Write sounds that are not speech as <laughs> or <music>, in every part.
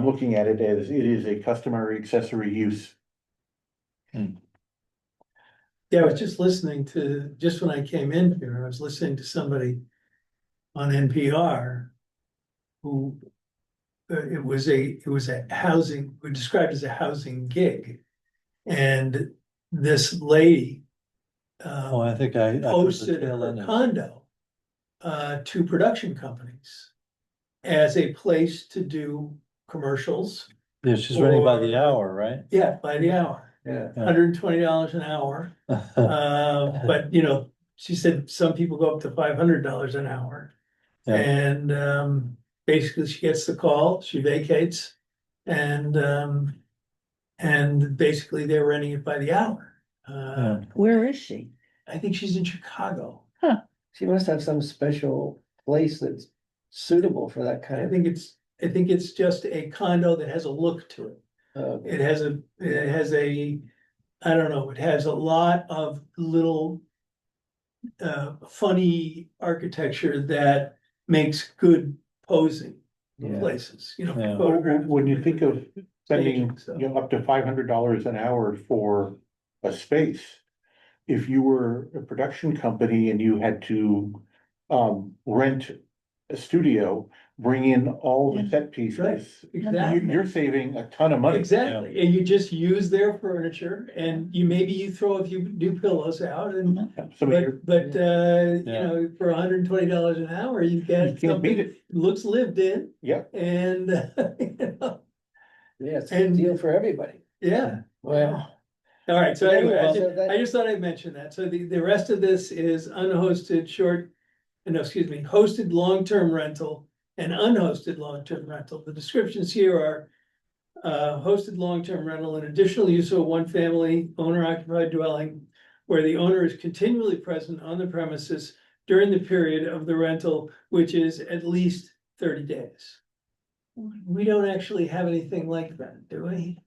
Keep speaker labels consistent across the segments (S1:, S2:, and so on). S1: I'm looking at it as it is a customary accessory use.
S2: Yeah, I was just listening to, just when I came in here, I was listening to somebody on NPR who uh, it was a, it was a housing, was described as a housing gig. And this lady
S3: Oh,
S2: uh,
S3: I think I. I was the
S2: posted
S3: tail
S2: her
S3: end of-
S2: condo uh, to production companies as a place to do commercials,
S3: Yeah, she's running by the
S2: or-
S3: hour, right?
S2: yeah, by the hour,
S1: Yeah.
S2: hundred and twenty dollars an hour. <laughs> Uh, but you know, she said some people go up to five hundred dollars an hour.
S3: Yeah.
S2: And um, basically she gets the call, she vacates and um. And basically they're renting it by the hour. Uh,
S3: Yeah.
S4: Where is she?
S2: I think she's in Chicago.
S5: She must have some special place that's suitable for that
S2: I
S5: kind
S2: think it's, I think it's just a condo that has a look to it.
S5: of, uh,
S2: It has a, it has a, I don't know, it has a lot of little. Uh, funny architecture that makes good posing
S5: Yeah.
S2: places, you know.
S3: Yeah.
S2: photographs.
S1: When you think of spending,
S2: Staging, so.
S1: you know, up to five hundred dollars an hour for a space. If you were a production company and you had to um rent a studio, bring in all the set pieces. You,
S2: Exactly,
S1: you're saving a ton of money.
S2: exactly, and you just use their furniture and you, maybe you throw a few new pillows out and.
S1: So I mean, you're-
S2: But, but, uh, you
S3: Yeah.
S2: know, for hundred and twenty dollars an hour, you
S1: you
S2: get
S1: can't beat
S2: something,
S1: it,
S2: looks lived in
S1: yeah.
S2: and, <laughs> you know,
S5: yeah, it's a
S2: and-
S5: deal for everybody.
S2: yeah.
S5: Well,
S2: All right, so anyway, I
S5: Well,
S2: ju- I
S5: so
S2: just,
S5: that-
S2: thought I'd mention that. So the, the rest of this is unhosted short. No, excuse me, hosted long-term rental and unhosted long-term rental. The descriptions here are. Uh, hosted long-term rental and additional use of a one-family owner-occupied dwelling. Where the owner is continually present on the premises during the period of the rental, which is at least thirty days. We don't actually have anything like that, do we?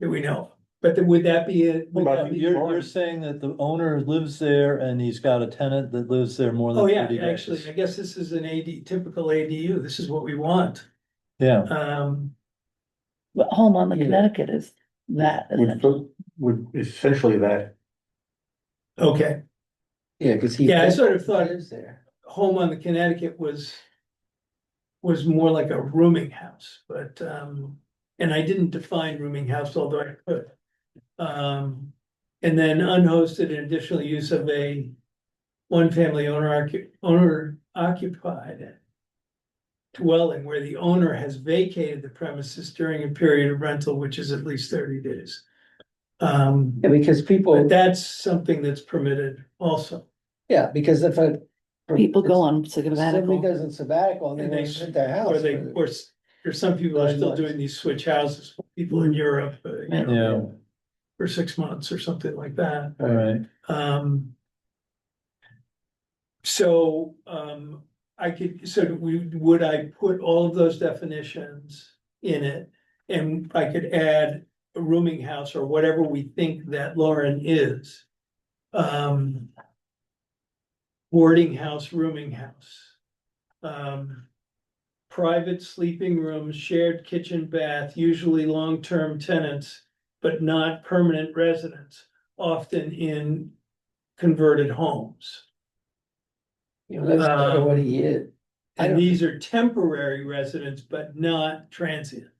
S2: That we know, of. but then would that be it? would
S1: Well,
S2: that be-
S3: You're, you're saying that the owner lives there and he's got a tenant that lives there more than
S2: Oh, yeah,
S3: thirty days.
S2: actually, I guess this is an AD, typical ADU, this is what we want,
S3: Yeah,
S2: um,
S4: But home on the
S1: Yeah.
S4: Connecticut is that, isn't
S1: Would,
S4: it?
S1: would essentially that,
S2: okay.
S5: yeah, cause he.
S2: Yeah, I sort of thought
S5: Lives there.
S2: home on the Connecticut was. Was more like a rooming house, but, um, and I didn't define rooming house, although I could. Um, and then unhosted and additional use of a. One-family owner occu- owner occupied. Dwelling where the owner has vacated the premises during a period of rental, which is at least thirty days. Um,
S5: Yeah, because people,
S2: but that's something that's permitted also,
S5: yeah, because if a.
S4: People go on
S5: If Somebody
S4: sabbatical.
S5: goes on sabbatical and they
S2: And
S5: want
S2: they-
S5: to rent their
S2: or
S5: house.
S2: they,
S5: for-
S2: or s- or some people are
S5: Nine
S2: still
S5: months.
S2: doing these switch houses, people in Europe, uh, you know,
S3: yeah,
S2: for six months or something like that,
S3: all right.
S2: um. So, um, I could, so do we, would I put all of those definitions in it? And I could add a rooming house or whatever we think that Lauren is. Um. Boarding house, rooming house. Um. Private sleeping rooms, shared kitchen, bath, usually long-term tenants, but not permanent residents, often in converted homes.
S5: You know, that's sort
S2: Um,
S5: of what he is. I
S2: And
S5: don't-
S2: these are temporary residents, but not transient.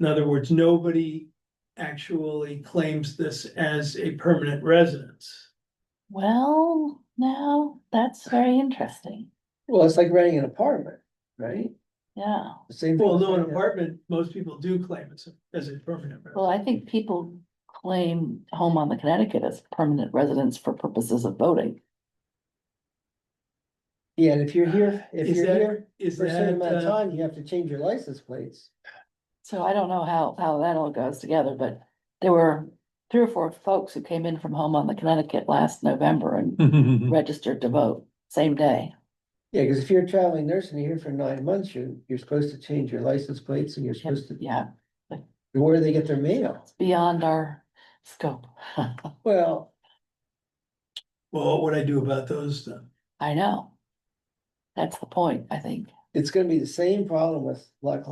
S2: In other words, nobody actually claims this as a permanent residence.
S4: Well, now, that's very interesting,
S5: Well, it's like renting an apartment, right?
S4: yeah.
S5: Same. thing
S2: Well,
S5: as
S2: no, an
S5: renting a-
S2: apartment, most people do claim it's as a permanent. residence.
S4: Well, I think people claim home on the Connecticut as permanent residence for purposes of voting.
S5: Yeah, and if you're here, if
S2: Is
S5: you're
S2: that-
S5: here
S2: Is
S5: for a certain
S2: that,
S5: amount
S2: uh,
S5: of time, you have to change your license plates.
S4: So I don't know how, how that all goes together, but there were three or four folks who came in from home on the Connecticut last November
S3: <laughs>
S4: and registered to vote same day.
S5: Yeah, because if you're a traveling nurse and you're here for nine months, you're, you're supposed to change your license plates and you're supposed to,
S4: Yeah,
S5: where do they get their mail?
S4: it's beyond our scope. <laughs>
S5: Well,
S2: well, what would I do about those then?
S4: I know. That's the point, I think.
S5: it's gonna be the same problem with Lock